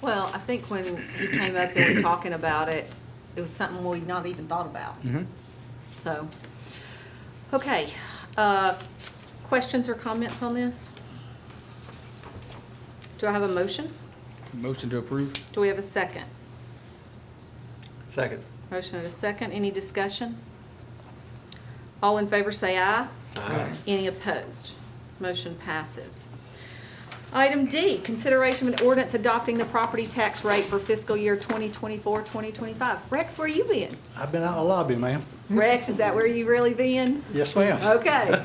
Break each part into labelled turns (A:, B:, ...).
A: Well, I think when you came up and was talking about it, it was something we'd not even thought about.
B: Mm-hmm.
A: So, okay, uh, questions or comments on this? Do I have a motion?
B: Motion to approve?
A: Do we have a second?
C: Second.
A: Motion and a second, any discussion? All in favor say aye.
C: Aye.
A: Any opposed? Motion passes. Item D, consideration of an ordinance adopting the property tax rate for fiscal year 2024, 2025. Rex, where you been?
D: I've been out in the lobby, ma'am.
A: Rex, is that where you really been?
D: Yes, ma'am.
A: Okay.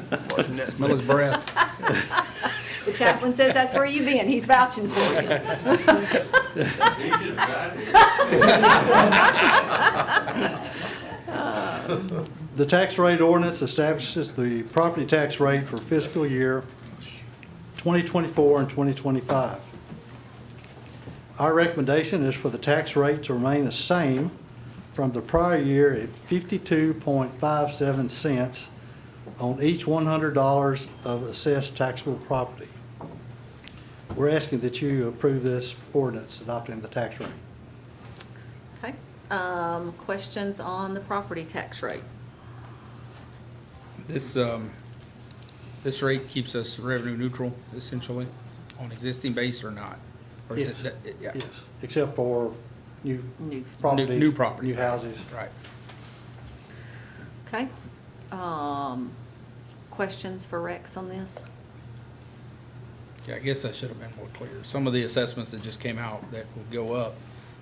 B: Smell his breath.
A: The chaplain says that's where you been. He's vouching for you.
D: The tax rate ordinance establishes the property tax rate for fiscal year 2024 and 2025. Our recommendation is for the tax rate to remain the same from the prior year at 52.57 cents on each $100 of assessed taxable property. We're asking that you approve this ordinance adopting the tax rate.
A: Okay. Um, Questions on the property tax rate?
B: This, um, this rate keeps us revenue neutral essentially on existing base or not? Or is it
D: Yes.
B: that- yeah.
D: Yes, except for new
A: New.
D: property.
B: New- new property.
D: New houses.
B: Right.
A: Okay. Um, Questions for Rex on this?
B: Yeah, I guess I should have been more clear. Some of the assessments that just came out that will go up,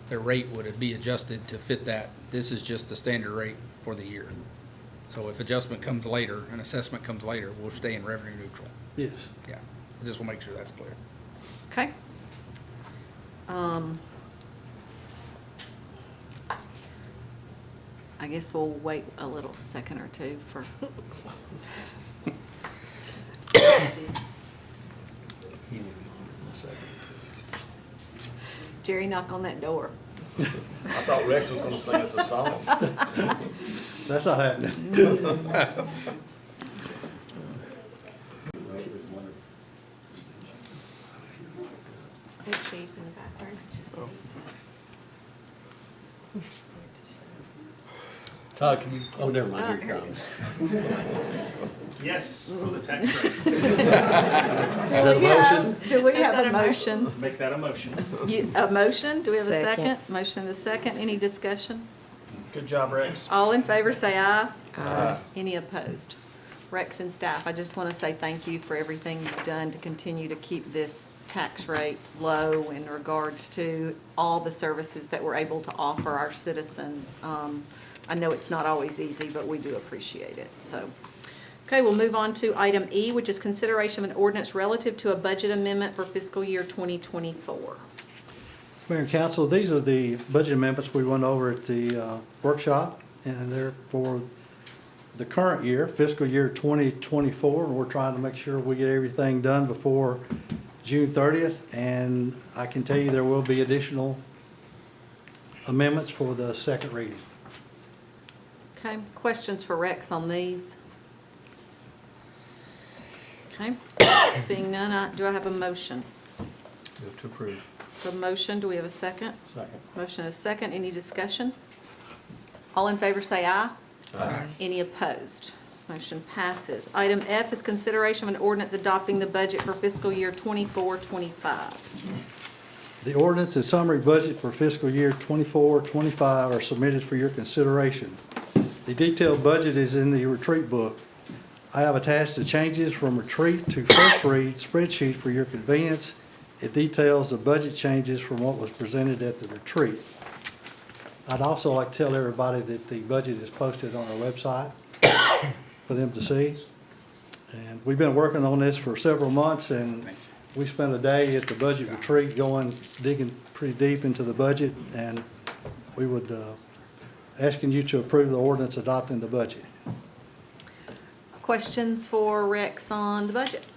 B: their rate would be adjusted to fit that. This is just the standard rate for the year. So if adjustment comes later, an assessment comes later, we'll stay in revenue neutral.
D: Yes.
B: Yeah, I just want to make sure that's clear.
A: Okay. Um, I guess we'll wait a little second or two for. Jerry, knock on that door.
E: I thought Rex was gonna sing us a song.
D: That's not happening.
F: in the background.
C: Todd, can you, oh, never mind, here it comes.
G: Yes, for the tax rate.
A: Do we have, do we have a motion?
G: Make that a motion.
A: You- A motion? Do we have a
F: Second.
A: second? Motion and a second. Any discussion?
G: Good job, Rex.
A: All in favor, say aye. Aye. Any opposed? Rex and staff, I just want to say thank you for everything you've done to continue to keep this tax rate low in regards to all the services that we're able to offer our citizens. Um, I know it's not always easy, but we do appreciate it, so. Okay, we'll move on to item E, which is consideration of an ordinance relative to a budget amendment for fiscal year 2024.
D: Mayor and council, these are the budget amendments we went over at the uh, workshop, and they're for the current year, fiscal year 2024, and we're trying to make sure we get everything done before June 30th. And I can tell you, there will be additional amendments for the second reading.
A: Okay, questions for Rex on these? Okay, seeing none, I- do I have a motion?
C: Move to approve.
A: A motion, do we have a second?
C: Second.
A: Motion and a second, any discussion? All in favor say aye.
C: Aye.
A: Any opposed? Motion passes. Item F is consideration of an ordinance adopting the budget for fiscal year 24-25.
D: The ordinance and summary budget for fiscal year 24-25 are submitted for your consideration. The detailed budget is in the retreat book. I have attached the changes from retreat to first read spreadsheet for your convenience. It details the budget changes from what was presented at the retreat. I'd also like to tell everybody that the budget is posted on our website for them to see. And we've been working on this for several months, and we spent a day at the budget retreat going, digging pretty deep into the budget, and we would, uh, asking you to approve the ordinance adopting the budget.
A: Questions for Rex on the budget?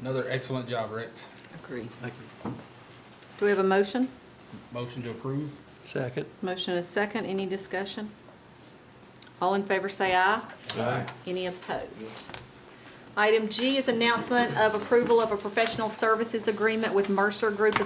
B: Another excellent job, Rex.
A: Agree.
D: Thank you.
A: Do we have a motion?
B: Motion to approve?
C: Second.
A: Motion and a second, any discussion? All in favor say aye.
C: Aye.
A: Any opposed? Item G is announcement of approval of a professional services agreement with Mercer Group